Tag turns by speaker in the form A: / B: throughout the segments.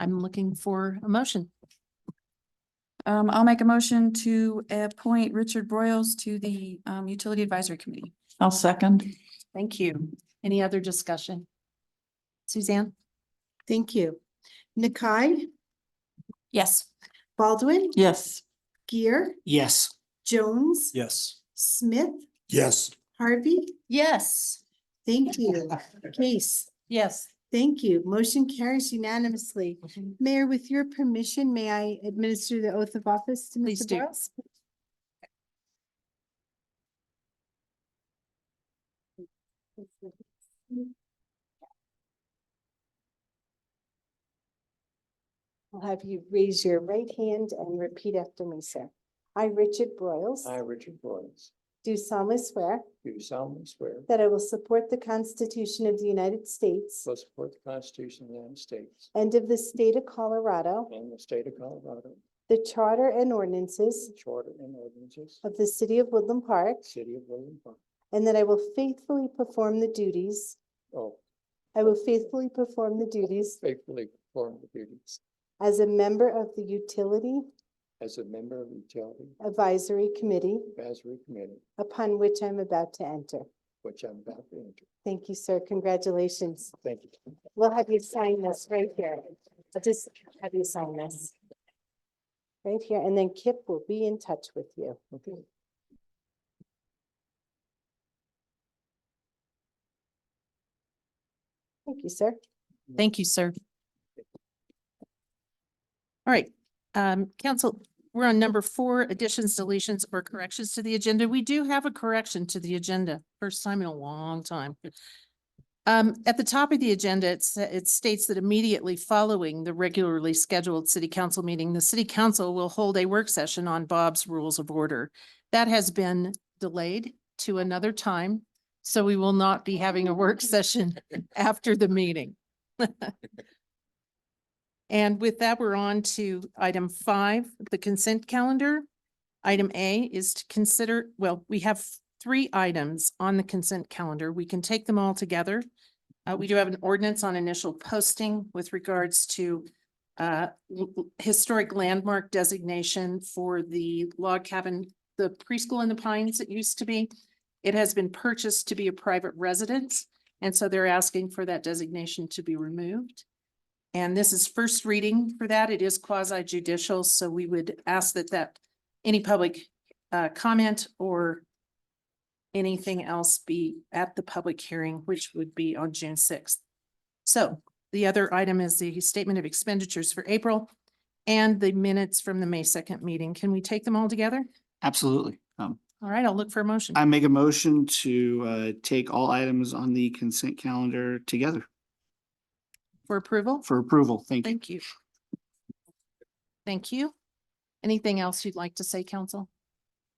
A: I'm looking for a motion.
B: Um, I'll make a motion to appoint Richard Broyles to the um Utility Advisory Committee.
C: I'll second.
A: Thank you. Any other discussion? Suzanne?
D: Thank you. Nakai,
B: Yes.
D: Baldwin,
C: Yes.
D: Gear,
E: Yes.
D: Jones,
E: Yes.
D: Smith,
E: Yes.
D: Harvey.
A: Yes.
D: Thank you. Case,
A: Yes.
D: thank you. Motion carries unanimously. Mayor, with your permission, may I administer the oath of office to
A: Please
D: Mr.
A: do.
D: Boyles? I'll have you raise your right hand and repeat after me, sir. I, Richard Broyles,
F: I, Richard Florence,
D: do solemnly swear
F: do solemnly swear that
D: that I will support the Constitution of the United States
F: I will support the Constitution of the United States
D: and of the state of Colorado,
F: and the state of Colorado,
D: the charter and
F: the
D: ordinances
F: charter and ordinances of
D: of the city of Woodland Park,
F: the city of Woodland Park.
D: and that I will faithfully perform the duties,
F: Oh,
D: I will faithfully perform the duties
F: faithfully perform the duties
D: as a member of the Utility
F: as a member of the Utility
D: Advisory Committee
F: Advisory Committee,
D: upon which I'm about to enter.
F: which I'm about to enter.
D: Thank you, sir. Congratulations.
F: Thank you.
D: We'll have you sign this right here. I'll just have you sign this. Right here, and then Kip will be in touch with you.
F: Okay.
D: Thank you, sir.
A: Thank you, sir. All right, um, council, we're on number four, additions, deletions, or corrections to the agenda. We do have a correction to the agenda, first time in a long time. Um, at the top of the agenda, it sa- it states that immediately following the regularly scheduled city council meeting, the city council will hold a work session on Bob's Rules of Order. That has been delayed to another time, so we will not be having a work session after the meeting. And with that, we're on to item five, the consent calendar. Item A is to consider, well, we have three items on the consent calendar. We can take them all together. Uh, we do have an ordinance on initial posting with regards to uh, l- l- historic landmark designation for the log cabin, the preschool in the pines it used to be. It has been purchased to be a private residence, and so they're asking for that designation to be removed. And this is first reading for that. It is quasi judicial, so we would ask that that, any public uh, comment or anything else be at the public hearing, which would be on June sixth. So the other item is the statement of expenditures for April and the minutes from the May second meeting. Can we take them all together?
E: Absolutely. Um,
A: All right, I'll look for a motion.
E: I make a motion to, uh, take all items on the consent calendar together
A: For approval?
E: for approval. Thank you.
A: Thank you. Thank you. Anything else you'd like to say, council?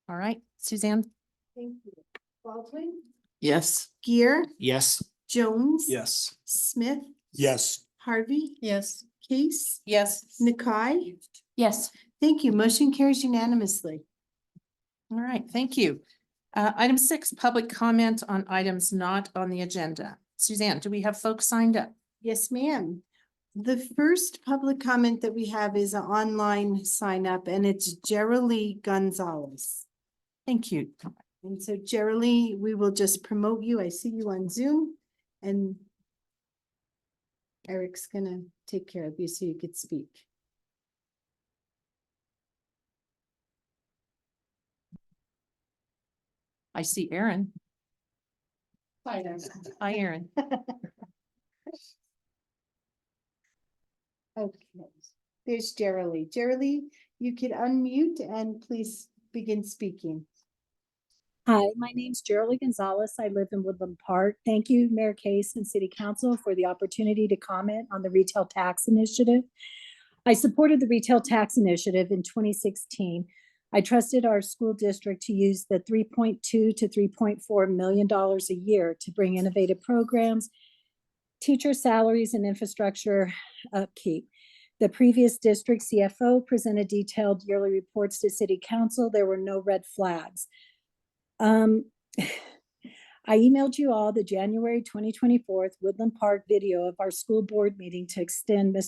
A: All right, Suzanne?
D: Thank you. Baldwin?
C: Yes.
D: Gear,
E: Yes.
D: Jones?
E: Yes.
D: Smith,
E: Yes.
D: Harvey,
B: Yes.
D: Case,
A: Yes.
D: Nakai.
B: Yes.
D: Thank you. Motion carries unanimously.
A: All right, thank you. Uh, item six, public comment on items not on the agenda. Suzanne, do we have folks signed up?
D: Yes, ma'am. The first public comment that we have is an online sign up and it's Geraldine Gonzalez.
A: Thank you.
D: And so Geraldine, we will just promote you. I see you on Zoom and Eric's gonna take care of you so you could speak.
A: I see Erin.
D: Hi,
A: Hi, Erin.
D: Okay, there's Geraldine. Geraldine, you could unmute and please begin speaking.
G: Hi, my name's Geraldine Gonzalez. I live in Woodland Park. Thank you, Mayor Case and City Council for the opportunity to comment on the retail tax initiative. I supported the retail tax initiative in twenty sixteen. I trusted our school district to use the three point two to three point four million dollars a year to bring innovative programs, teacher salaries and infrastructure upkeep. The previous district CFO presented detailed yearly reports to city council. There were no red flags. Um, I emailed you all the January twenty twenty-fourth Woodland Park video of our school board meeting to extend Mr.